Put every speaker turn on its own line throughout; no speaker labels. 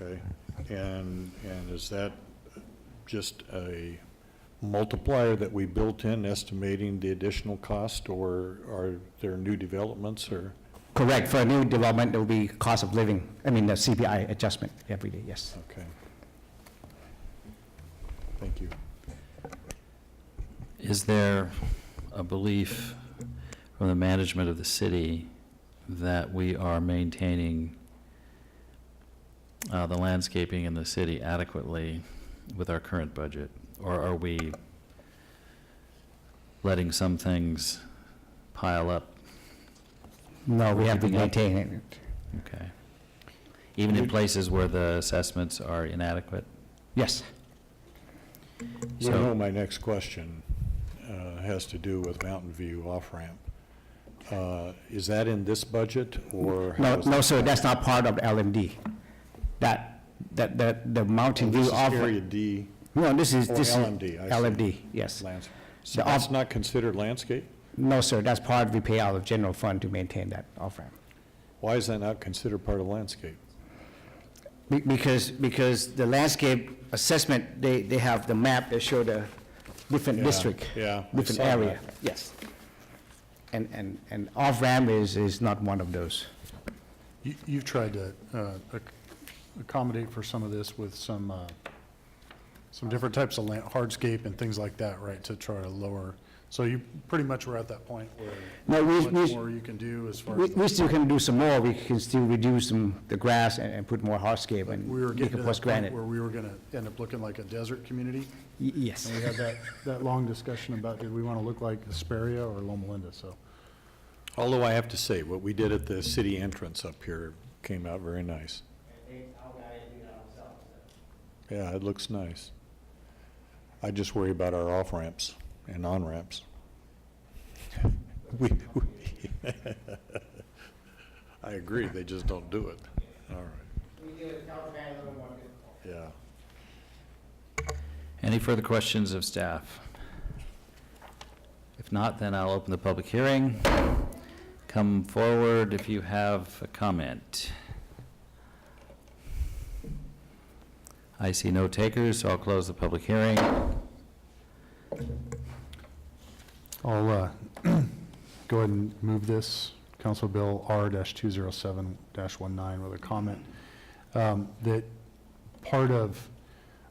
Okay, and, and is that just a multiplier that we built in estimating the additional cost, or are there new developments, or?
Correct, for a new development, it will be cost of living, I mean, the CPI adjustment every day, yes.
Okay. Thank you.
Is there a belief from the management of the city that we are maintaining uh, the landscaping in the city adequately with our current budget? Or are we letting some things pile up?
No, we have to
Keeping up.
maintain it.
Okay. Even in places where the assessments are inadequate?
Yes,
You
So-
know, my next question uh, has to do with Mountain View off-ramp. Uh, Is that in this budget, or?
no,
how is
no,
that-
sir, that's not part of LMD. That, that, that, the Mountain
Oh, This
View
is
offer.
Area D,
No, this is,
Or
this is.
LMD, I see.
LMD, yes.
lands, so
The
that's
off-
not considered landscape?
No, sir, that's part we pay out of general fund to maintain that off-ramp.
Why is that not considered part of landscape?
Be- Because, because the landscape assessment, they, they have the map that show the different
Yeah,
district.
yeah, I
Different
saw that.
area, yes. And, and, and off-ramp is, is not one of those.
You- You've tried to uh, ac- accommodate for some of this with some, uh, some different types of land, hardscape and things like that, right, to try to lower. So you pretty much were at that point where
No, we,
what
we,
more you can do as far
we-
as, the-
we still can do some more, we can still reduce some, the grass and, and put more hardscape and
we were getting to
decompose
that point
granite.
where we were going to end up looking like a desert community.
Y- Yes,
And we had that, that long discussion about, did we want to look like Hesperia or Loma Linda, so.
Although I have to say, what we did at the city entrance up here came out very nice. Yeah, it looks nice. I just worry about our off-ramps and on-ramps. We, we- I agree, they just don't do it. All right, yeah.
Any further questions of staff? If not, then I'll open the public hearing. Come forward if you have a comment. I see no takers, so I'll close the public hearing.
I'll uh, go ahead and move this, Council Bill R-207-19, with a comment um, that part of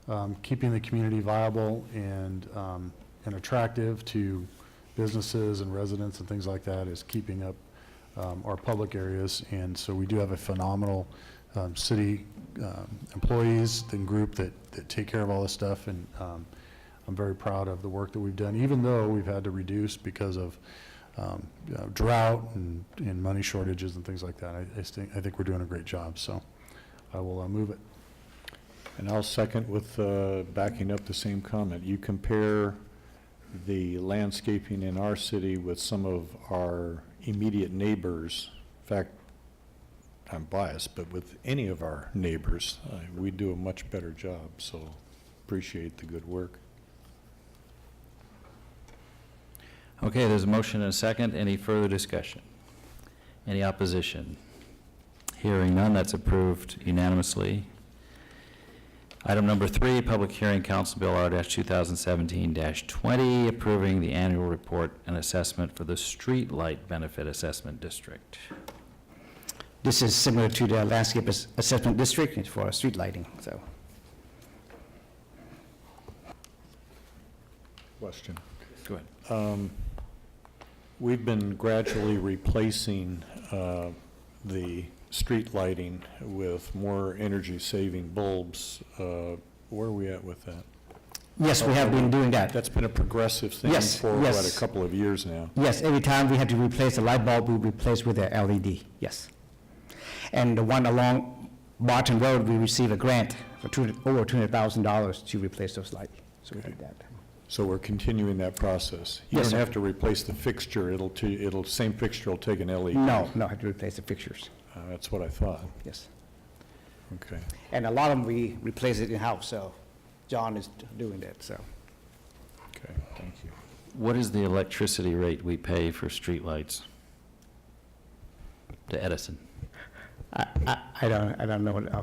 um, keeping the community viable and, um, and attractive to businesses and residents and things like that is keeping up um, our public areas. And so we do have a phenomenal um, city um, employees and group that, that take care of all this stuff. And um, I'm very proud of the work that we've done, even though we've had to reduce because of um, you know, drought and, and money shortages and things like that. I, I think, I think we're doing a great job, so I will uh, move it.
And I'll second with uh, backing up the same comment. You compare the landscaping in our city with some of our immediate neighbors. In fact, I'm biased, but with any of our neighbors, uh, we do a much better job, so appreciate the good work.
Okay, there's a motion and a second. Any further discussion? Any opposition? Hearing none, that's approved unanimously. Item number three, public hearing, Council Bill R-2017-20, approving the annual report and assessment for the Streetlight Benefit Assessment District.
this is similar to the landscape ass- assessment district, it's for street lighting, so.
Question. Um,
Go ahead.
We've been gradually replacing uh, the street lighting with more energy-saving bulbs. Uh, Where are we at with that?
Yes, we have been doing that.
That's been a progressive thing
Yes,
for, what,
yes.
a couple of years now?
Yes, every time we had to replace a light bulb, we replace with a LED, yes. And the one along Barton Road, we receive a grant for two, over $200,000 to replace those lights, so we did that.
So we're continuing that process? You
Yes, sir.
don't have to replace the fixture, it'll, t- it'll, same fixture will take an LED?
No, no, had to replace the fixtures,
Uh, That's what I thought,
yes.
okay.
And a lot of them, we replace it in-house, so John is doing that, so.
Okay, thank you.
What is the electricity rate we pay for streetlights? To Edison?
I, I, I don't, I don't know